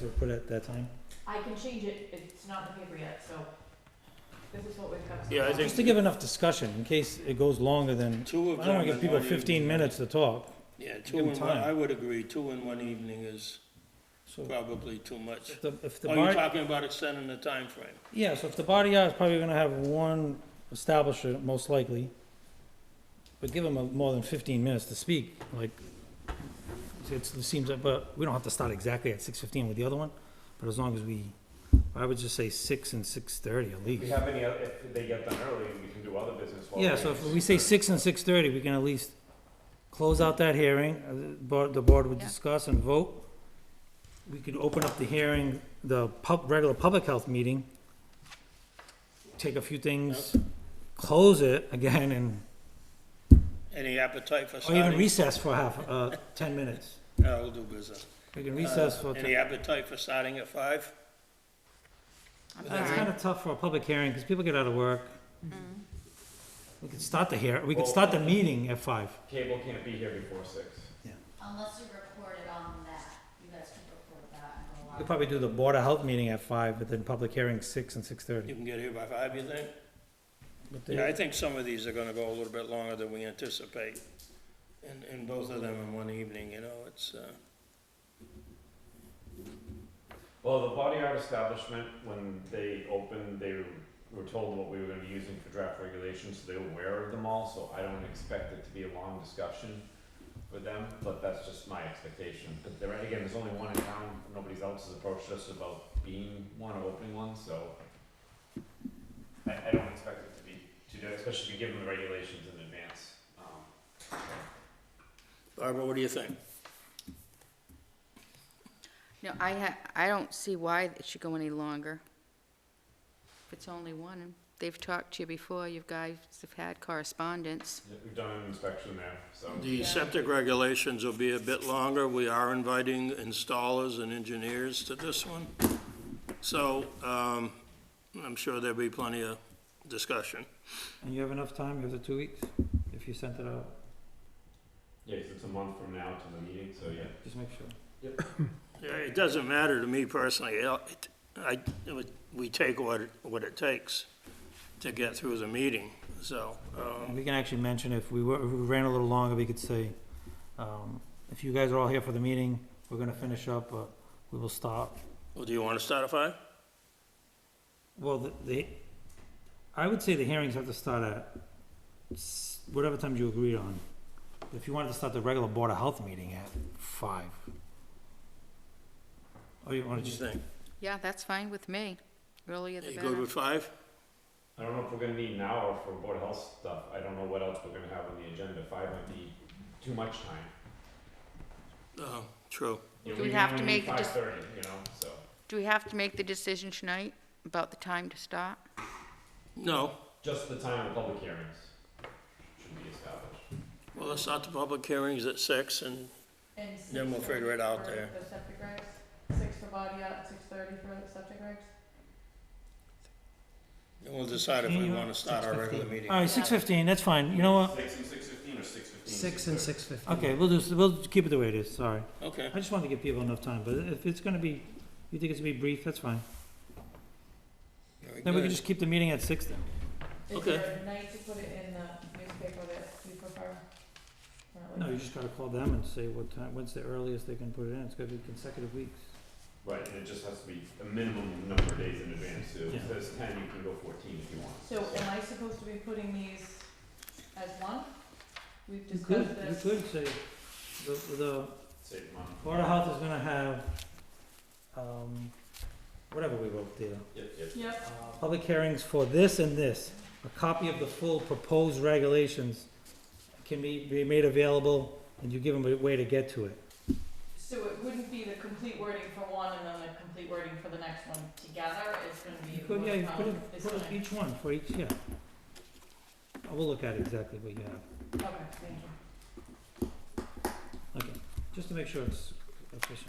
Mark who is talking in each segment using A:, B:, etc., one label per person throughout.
A: So put it at that time?
B: I can change it, it's not in the paper yet, so this is what we've got.
C: Yeah, I
A: Just to give enough discussion in case it goes longer than, I
C: Two of them.
A: don't wanna give
C: in
A: people
C: one
A: fifteen
C: evening.
A: minutes to talk.
C: Yeah,
A: give
C: two
A: them
C: in one,
A: time.
C: I would agree, two in one evening is
A: So
C: probably too much.
A: if the, if the
C: Are you
A: body,
C: talking about extending the time frame?
A: yeah, so if the body art is probably gonna have one establishment, most likely. But give them a- more than fifteen minutes to speak, like, it's, it seems, like- but we don't have to start exactly at six fifteen with the other one, but as long as we, I would just say six and six thirty at
D: If we
A: least.
D: have any, oth- if they get done early, we can do other business while.
A: Yeah, so if we say six and six thirty, we can at least close out that hearing, uh, the board, the board would
E: Yeah.
A: discuss and vote. We could open up the hearing, the pub, regular public health meeting, take a few things, close it again, and,
C: Any appetite for
A: or
C: starting?
A: Oh, even recess for half, uh, ten minutes.
C: Yeah, we'll do business.
A: We can recess
C: Uh,
A: for, ten-
C: Any appetite for starting at five?
E: I'm
C: But
A: it's
E: fine.
A: kinda tough for a public hearing, because people get out of work. We could start the hear, we could start the meeting at five.
D: Cable can't be here before six.
F: Unless you record it on that, you guys can record that and go
A: We could
F: live.
A: probably do the board of health meeting at five, but then public hearing six and six
C: You
A: thirty.
C: can get here by five, you think? Yeah, I think some of these are gonna go a little bit longer than we anticipate. And, and both of them in one evening, you know, it's, uh,
D: Well, the body art establishment, when they opened, they were told what we were gonna be using for draft regulations, so they were aware of them all, so I don't expect it to be a long discussion with them, but that's just my expectation. But there, again, there's only one in town, nobody else has approached us about being one or opening one, so I, I don't expect it to be, too do, especially if you give them the regulations in advance. Um,
C: Barbara, what do you think?
E: No, I ha, I don't see why it should go any longer. If it's only one, and they've talked to you before, you guys have had correspondence.
D: We've done an inspection there, so.
C: The septic regulations will be a bit longer. We are inviting installers and engineers to this one. So, um, I'm sure there'll be plenty of discussion.
A: And you have enough time, you have the two weeks, if you sent it out,
D: Yeah, 'cause it's a month from now to the meeting, so yeah.
A: just make sure.
C: Yeah, It doesn't matter to me personally. It- I, we take what, it- what it takes to get through the meeting, so, um,
A: And we can actually mention if we were, if we ran a little longer, we could say, um, if you guys are all here for the meeting, we're gonna finish up, but we will stop.
C: well, do you want to start at five?
A: Well, the, the, I would say the hearings have to start at s- whatever time you agreed on. If you wanted to start the regular Board of Health meeting at five. Or Oh, you wanna
C: What do you
A: just,
C: think?
E: Yeah, that's fine with me. Earlier the
C: You good
E: better.
C: with five?
D: I don't know if we're gonna need an hour for board of health stuff. I don't know what else we're gonna have on the agenda. Five might be too much time.
C: Oh, true.
D: You know,
E: Do we have to
D: only
E: make
D: need
E: a dec-
D: Five thirty, you know, so.
E: Do we have to make the decision tonight about the time to start?
C: No,
D: Just the time of public hearings should be established.
C: well, let's start the public hearings at six and
B: And six
C: Then we'll figure it out
B: for
C: there.
B: The septic regs, six for body out, six thirty for the septic regs.
C: And we'll decide if we want to start our regular meeting.
A: alright, six fifteen, that's fine, you know what?
D: Six and six fifteen or six fifteen?
G: six fifty.
A: Okay, we'll just, we'll keep it the way it is, sorry.
C: Okay,
A: I just wanted to give people enough time, but if it's gonna be, you think it's gonna be brief, that's fine.
C: very
A: Then we can
C: good.
A: just keep the meeting at six then.
B: Is
C: Okay.
B: there a night to put it in the newspaper that you prefer? Or like-
A: No, you just gotta call them and say what time, when's the earliest they can put it in, it's gotta be consecutive weeks.
D: Right, and it just has to be a minimum number of days in advance, so if it
A: Yeah.
D: says ten, you can go fourteen if you want.
B: So
E: uh,
B: am I supposed to be putting these as one? We've
A: You could,
B: discussed
A: you could
B: this.
A: say, the, the
D: Save money.
A: Board of Health is gonna have, um, whatever we wrote there.
D: Yep, yep.
B: Yep,
A: Uh, Public hearings for this and this, a copy of the full proposed regulations can be, be made available, and you give them a way to get to it.
B: so it wouldn't be the complete wording for one and then the complete wording for the next one together, it's gonna be.
A: You could, yeah, you
B: what's
A: put
B: on
A: it,
B: this
A: put it
B: one.
A: each one for each, yeah. I will look at exactly what you have,
B: Okay, thank you.
A: okay, just to make sure it's efficient.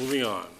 C: Moving on.